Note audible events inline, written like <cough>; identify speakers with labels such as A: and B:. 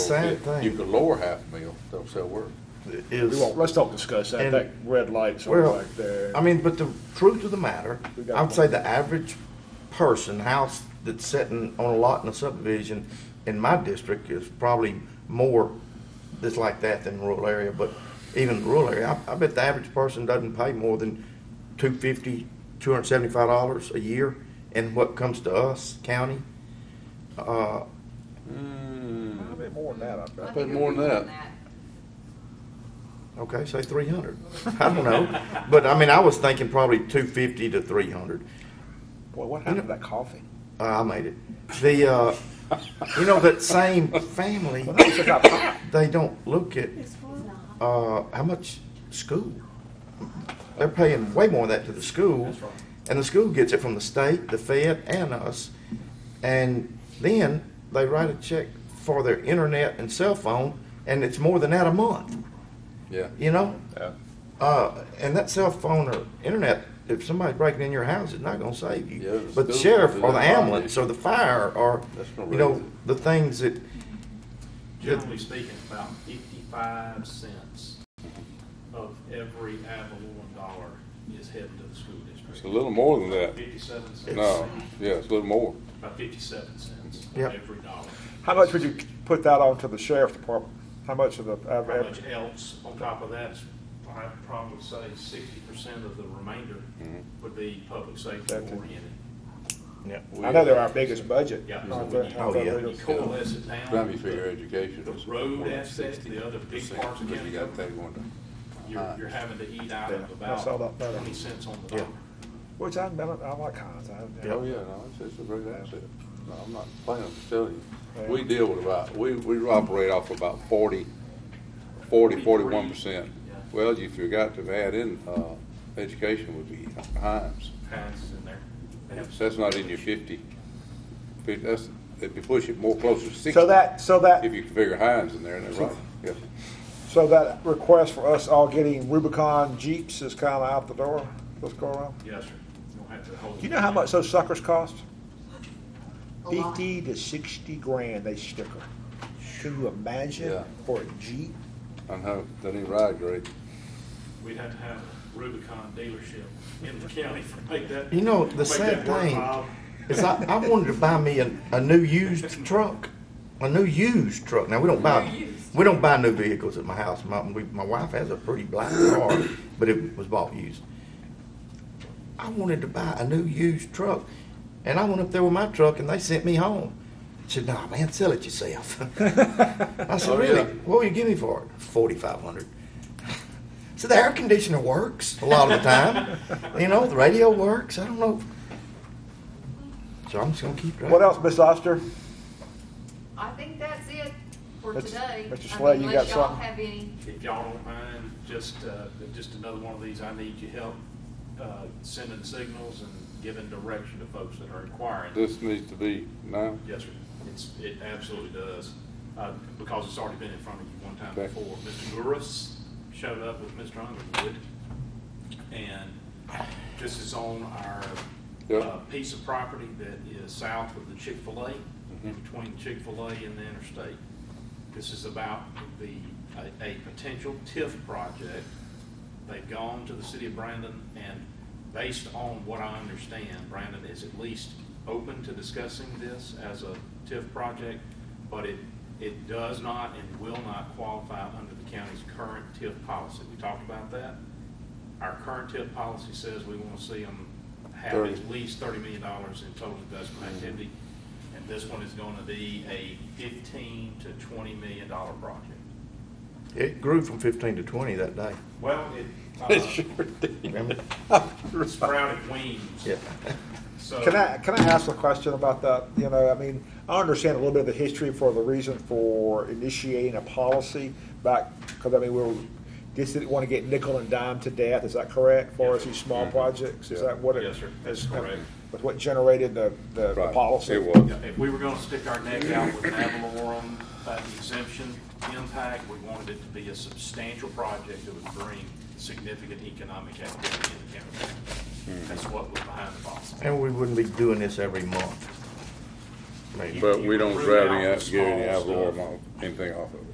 A: could-
B: sad thing.
A: You could lower half a mil, don't sell word.
B: is.
C: We won't, let's don't discuss that,
B: And-
C: that red light's over
B: Well,
C: back there.
B: I mean, but the truth of the matter,
C: We got
B: I would
C: one.
B: say the average person, house that's sitting on a lot in a subdivision in my district is probably more that's like that than rural area, but even rural area, I, I bet the average person doesn't pay more than two fifty, two hundred seventy-five dollars a year in what comes to us, county. Uh,
C: A little bit more than that, I bet.
A: Put more than that.
B: Okay, say three hundred. I don't
C: <laughs>
B: know, but I mean, I was thinking probably two fifty to three hundred.
C: Boy, what happened to that <laughs> coffee?
B: Uh, I made it. The uh, you know that same family,
C: Well, that was a cup of pie.
B: they don't look at uh, how much school. They're paying way more of that to the school, and the school gets it from the state, the Fed, and us. And then they write a check for their internet and cell phone, and it's more than that a month.
A: Yeah.
B: You know,
C: Yeah.
B: uh, and that cell phone or internet, if somebody's breaking in your house, it's not gonna save you.
A: Yeah, it's
B: But the
A: still-
B: sheriff or the
A: it's not
B: ambulance
A: easy.
B: or the fire or,
A: That's gonna
B: you know,
A: raise it.
B: the things that,
D: Generally speaking, about fifty-five cents of every Avalon dollar is heading to the school district.
A: It's a little more than that.
D: Fifty-seven cents.
A: No, yeah, it's a little more.
D: About fifty-seven cents of
B: Yep.
D: every dollar.
C: How much would you put that on to the sheriff's department? How much of the, I've-
D: How much
C: I've-
D: else on top of that, is, I'd probably say sixty percent of the remainder
A: Mm-hmm.
D: would be public safety
C: Okay.
D: oriented.
C: I know they're our biggest budget.
D: Yeah.
C: aren't they?
B: Oh, yeah.
D: You coalesce it down.
A: Time you figure education.
D: The
A: is
D: road
A: more than 60%,
D: aspect, the other big parts
A: because
D: of
A: You
D: county
A: got that going to.
D: You're, you're having to eat out
C: Yeah,
D: of
C: I saw that
D: about
C: photo.
D: twenty cents on the
B: Yeah.
D: dollar.
C: Which I, I like Heinz. I-
A: Oh, yeah, no, it's, it's a great asset. No, I'm not planning to tell you. We deal with about, we, we operate off about forty, forty, forty-one percent.
D: Yeah.
A: Well, you forgot to add in, uh, education would be Heinz.
D: Heinz in there. They have
A: So that's not in your fifty. Fif- That's, if you push it more closer to sixty.
C: So that, so
A: If
C: that,
A: you figure Heinz in there, and that's
C: <laughs>
A: right, yes.
C: so that request for us all getting Rubicon Jeeps is kind of out the door this go around?
D: Yes, sir. You don't have to hold.
C: Do you know how much those suckers cost?
E: A lot.
C: Fifty to sixty grand they sticker. Can you imagine
A: Yeah.
C: for a Jeep?
A: I know, doesn't even ride great.
D: We'd have to have a Rubicon dealership in the county for make that.
B: you know, the
D: make
B: sad
D: that work,
B: thing
D: Bob.
B: is I, I wanted to buy me a, a new used truck, a new used truck. Now, we don't buy, we don't buy new vehicles at my house. My, we, my wife has a pretty black car, but it was bought used. I wanted to buy a new used truck, and I went up there with my truck, and they sent me home. Said, "Nah, man, sell it yourself." <laughs> I said,
A: Oh,
B: "Really?
A: yeah.
B: What will you give me for it?" Forty five hundred. <laughs> So the air conditioner works a lot of the time. you know, the radio works. I don't know. So I'm just gonna keep driving.
C: What else, Miss Oster?
E: I think that's it for
C: Mr.
E: today.
C: Mr.
E: I
C: Slay,
E: mean,
C: you got
E: Unless y'all
C: something?
E: have any,
D: If y'all don't mind, just, uh, just another one of these, I need your help, uh, sending signals and giving direction to folks that are inquiring.
A: This needs to be now.
D: Yes, sir. It's, it absolutely does, uh, because it's already been in front of you one time
A: Okay.
D: before. Mr. Gurus showed up with Mr. Underwood, and this is on our
A: Yep.
D: uh, piece of property that is south of the Chick-fil-A, in between Chick-fil-A and the interstate. This is about the, a, a potential TIF project. They've gone to the city of Brandon, and based on what I understand, Brandon is at least open to discussing this as a TIF project, but it, it does not and will not qualify under the county's current TIF policy. We talked about that. Our current TIF policy says we want to see them have
A: Thirty.
D: at least thirty million dollars in total investment activity. And this one is going to be a fifteen to twenty million dollar project.
B: It grew from 15 to 20 that day.
D: Well, it,
A: It
D: uh,
A: sure did.
B: Remember?
D: sprouted wings.
B: Yeah.
D: So-
C: Can I, can I ask a question about that? You know, I mean, I understand a little bit of the history for the reason for initiating a policy back, because I mean, we were, just didn't want to get nickel and dime to death, is that correct? For
D: Yes,
C: these small
A: Mm-hmm.
C: projects, is that what it?
D: Yes, sir. That's correct.
C: That's what generated the, the the
A: Right.
C: policy?
A: It was.
D: Yeah, If we were gonna stick our neck out with an Avalorum exemption impact, we wanted it to be a substantial project that would bring significant economic activity in the county. That's what was behind the policy.
B: And we wouldn't be doing this every month. I mean,
A: But we don't drive any, out-
D: Root out the
A: get any
D: small
A: alcohol,
D: stuff.
A: malt, anything off of it.